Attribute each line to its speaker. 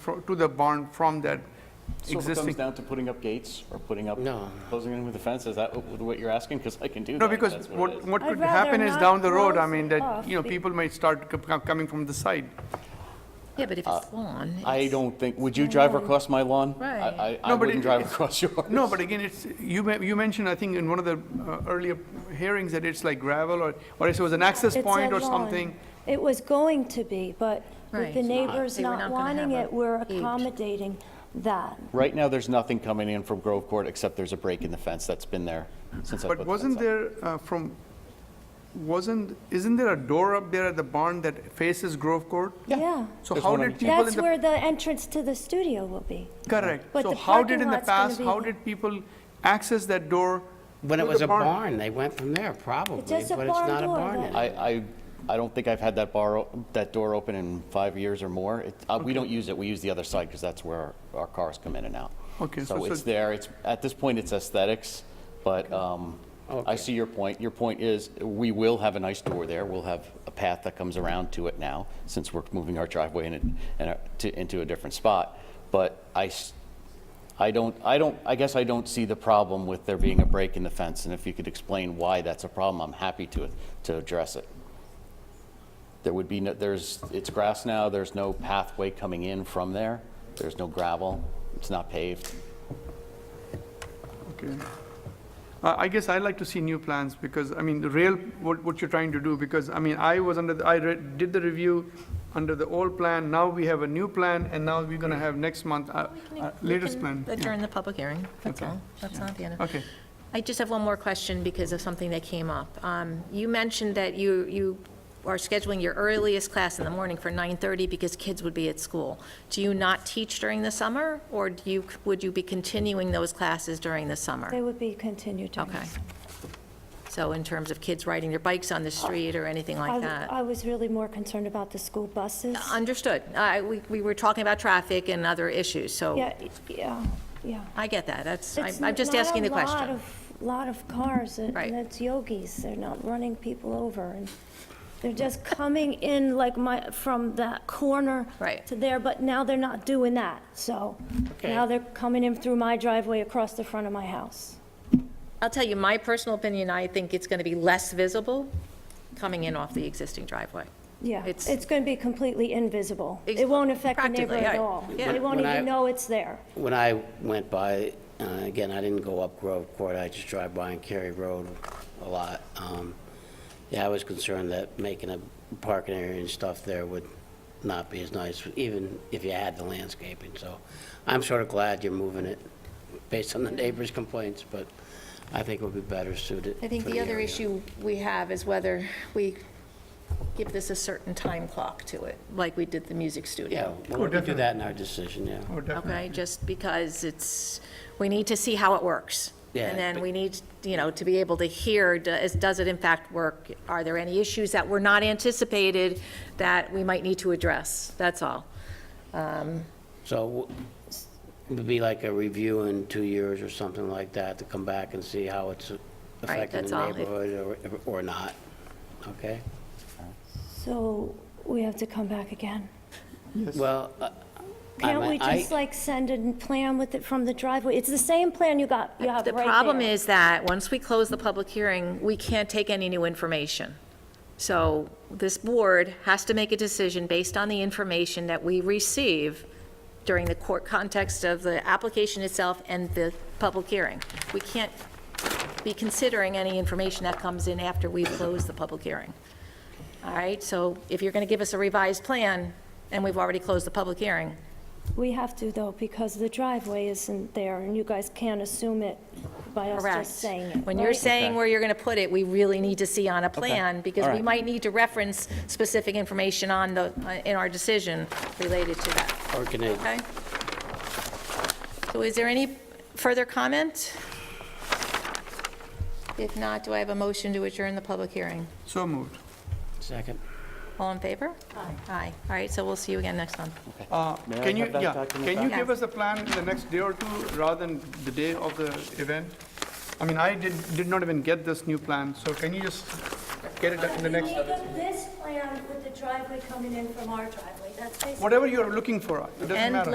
Speaker 1: fro- to the barn from that
Speaker 2: So if it comes
Speaker 1: existing?
Speaker 2: down to putting up gates or putting up,
Speaker 3: No.
Speaker 2: closing in with a fence, is that what what you're asking? Because I can do that.
Speaker 1: No,
Speaker 2: if
Speaker 1: because
Speaker 2: that's it
Speaker 1: what,
Speaker 2: is.
Speaker 1: what
Speaker 4: I'd
Speaker 1: could happen
Speaker 4: rather
Speaker 1: is
Speaker 4: not
Speaker 1: down the road, I
Speaker 4: close
Speaker 1: mean,
Speaker 4: it
Speaker 1: that,
Speaker 4: off
Speaker 1: you know,
Speaker 4: be-
Speaker 1: people might start co- co- coming from the side.
Speaker 5: Yeah, but if it's lawn.
Speaker 2: I
Speaker 5: it's-
Speaker 2: don't think, would you drive across my lawn? I-
Speaker 5: Right.
Speaker 2: I, I
Speaker 1: No, but
Speaker 2: wouldn't
Speaker 1: it-
Speaker 2: drive
Speaker 1: it's-
Speaker 2: across yours.
Speaker 1: No, but again, it's, you, men- you mentioned, I think, in one of the uh, earlier hearings that it's like gravel or, or if it was an access
Speaker 4: It's
Speaker 1: point
Speaker 4: a
Speaker 1: or
Speaker 4: lawn.
Speaker 1: something.
Speaker 4: It was going to be, but with
Speaker 5: Right.
Speaker 4: the
Speaker 5: It's not.
Speaker 4: neighbors
Speaker 5: They were
Speaker 4: not
Speaker 5: not gonna
Speaker 4: wanting
Speaker 5: have
Speaker 4: it,
Speaker 5: a
Speaker 4: we're
Speaker 5: paved.
Speaker 4: accommodating that.
Speaker 2: Right now, there's nothing coming in from Grove Court except there's a break in the fence that's been there since I put the
Speaker 1: But
Speaker 2: fence
Speaker 1: wasn't
Speaker 2: up.
Speaker 1: there uh, from, wasn't, isn't there a door up there at the barn that faces Grove Court?
Speaker 4: Yeah.
Speaker 1: So
Speaker 2: There's
Speaker 1: how
Speaker 2: one on
Speaker 1: did
Speaker 2: each-
Speaker 1: people in
Speaker 4: That's
Speaker 1: the
Speaker 4: where the entrance to the studio will be.
Speaker 1: Correct.
Speaker 4: But
Speaker 1: So
Speaker 4: the
Speaker 1: how did
Speaker 4: parking
Speaker 1: in the
Speaker 4: lot's gonna
Speaker 1: past,
Speaker 4: be
Speaker 1: how
Speaker 4: there.
Speaker 1: did people access that door?
Speaker 3: When it
Speaker 1: to
Speaker 3: was
Speaker 1: the
Speaker 3: a barn, they went from there, probably, but
Speaker 4: just
Speaker 3: it's
Speaker 4: a barn
Speaker 3: not a
Speaker 4: door,
Speaker 3: barn
Speaker 4: that-
Speaker 3: anymore.
Speaker 2: I, I, I don't think I've had that bar, o- that door open in five years or more. It- uh, We don't use it, we use the other side because that's where our- our cars come in and out.
Speaker 1: Okay, so-
Speaker 2: So
Speaker 1: so-
Speaker 2: it's there, it's, at this point, it's aesthetics, but um, I
Speaker 3: Okay.
Speaker 2: see your point. Your point is, we will have a nice door there, we'll have a path that comes around to it now, since we're moving our driveway in, and- and uh, to- into a different spot. But I, s- I don't, I don't, I guess I don't see the problem with there being a break in the fence, and if you could explain why that's a problem, I'm happy to, to address it. There would be, no there's, it's grass now, there's no pathway coming in from there, there's no gravel, it's not paved.
Speaker 1: Okay. I I guess I'd like to see new plans because, I mean, the real, what, what you're trying to do, because, I mean, I was under, the- I read, did the review under the old plan, now we have a new plan, and now we're gonna have next month, uh, uh,
Speaker 5: We
Speaker 1: latest
Speaker 5: can
Speaker 1: plan. Yeah.
Speaker 5: Adjourn the public hearing, that's
Speaker 1: Okay.
Speaker 5: all. That's not the end. of-
Speaker 1: Okay,
Speaker 5: I just have one more question because of something that came up. Um, You mentioned that you, you are scheduling your earliest class in the morning for 9:30 because kids would be at school. Do you not teach during the summer, or do you, would you be continuing those classes during the
Speaker 4: They
Speaker 5: summer?
Speaker 4: would be continued. during
Speaker 5: Okay.
Speaker 4: this.
Speaker 5: So in terms of kids riding their bikes on the street or anything
Speaker 4: I
Speaker 5: like that?
Speaker 4: I was really more concerned about the school buses.
Speaker 5: Understood. I- We we were talking about traffic and other issues, so
Speaker 4: Yeah, yeah, yeah.
Speaker 5: I get that. That's, I'm
Speaker 4: It's
Speaker 5: I'm just
Speaker 4: not a
Speaker 5: asking the
Speaker 4: lot
Speaker 5: question.
Speaker 4: of- Lot of cars, and
Speaker 5: Right.
Speaker 4: and it's yogis, they're not running people over, and they're just coming in like my, from that corner
Speaker 5: Right.
Speaker 4: to there, but now they're not doing that, so
Speaker 3: Okay.
Speaker 4: now they're coming in through my driveway across the front of my house.
Speaker 5: I'll tell you, my personal opinion, I think it's going to be less visible coming in off the existing driveway.
Speaker 4: Yeah,
Speaker 5: It's-
Speaker 4: it's going to be completely invisible.
Speaker 5: Ex-
Speaker 4: It won't affect the
Speaker 5: practically,
Speaker 4: neighborhood at
Speaker 5: yeah.
Speaker 4: all.
Speaker 5: Yeah.
Speaker 4: They won't
Speaker 3: When I-
Speaker 4: even know it's there.
Speaker 3: When I went by, uh, again, I didn't go up Grove Court, I just drive by on Cary Road a lot. Um, Yeah, I was concerned that making a parking area and stuff there would not be as nice, even if you had the landscaping, so I'm sort of glad you're moving it based on the neighbors' complaints, but I think it would be better suited
Speaker 5: I think
Speaker 3: for
Speaker 5: the other
Speaker 3: area.
Speaker 5: issue we have is whether we give this a certain time clock to it, like we did the music
Speaker 3: Yeah,
Speaker 5: studio.
Speaker 3: we'll we'll do that in our decision, yeah.
Speaker 1: oh, definitely.
Speaker 5: Okay, just because it's, we need to see how it works.
Speaker 3: Yeah,
Speaker 5: And then
Speaker 3: but-
Speaker 5: we need, you know, to be able to hear, does, does it in fact work? Are there any issues that were not anticipated that we might need to address? That's all.
Speaker 3: So it would be like a review in two years or something like that to come back and see how it's affecting
Speaker 5: that's
Speaker 3: the
Speaker 5: all. It-
Speaker 3: neighborhood or or not, okay?
Speaker 4: So we have to come back again.
Speaker 3: Well, uh, I
Speaker 4: Can't we
Speaker 3: mean, I,
Speaker 4: just like send a plan with it from the driveway? It's the same plan you got, you have
Speaker 5: The
Speaker 4: right
Speaker 5: problem
Speaker 4: there.
Speaker 5: is that, once we close the public hearing, we can't take any new information. So this board has to make a decision based on the information that we receive during the court context of the application itself and the public hearing. We can't be considering any information that comes in after we've closed the public hearing. All right, so if you're going to give us a revised plan, and we've already closed the public hearing,
Speaker 4: We have to though, because the driveway isn't there and you guys can't assume it by us
Speaker 5: Correct.
Speaker 4: just saying it.
Speaker 5: When you're
Speaker 4: right?
Speaker 5: saying where you're going to put it, we really need to see on a plan, because
Speaker 2: All
Speaker 5: we
Speaker 2: right.
Speaker 5: might need to reference specific information on the, uh, in our decision related to that,
Speaker 3: or can I,
Speaker 5: okay? So is there any further comment? If not, do I have a motion to adjourn the public hearing?
Speaker 1: So moved.
Speaker 3: second?
Speaker 5: All in favor? Aye. Aye. All right, so we'll see you again next month.
Speaker 1: Uh,
Speaker 2: May I
Speaker 1: Can you,
Speaker 2: have that
Speaker 1: yeah,
Speaker 2: document
Speaker 1: can you
Speaker 5: back?
Speaker 1: give us a plan in the next day or two rather than the day of the event? I mean, I did, did not even get this new plan, so can you just get it in the next,
Speaker 4: this plan with the driveway coming in from our driveway, that's basically.
Speaker 1: whatever you're looking for, it doesn't
Speaker 5: And
Speaker 1: matter.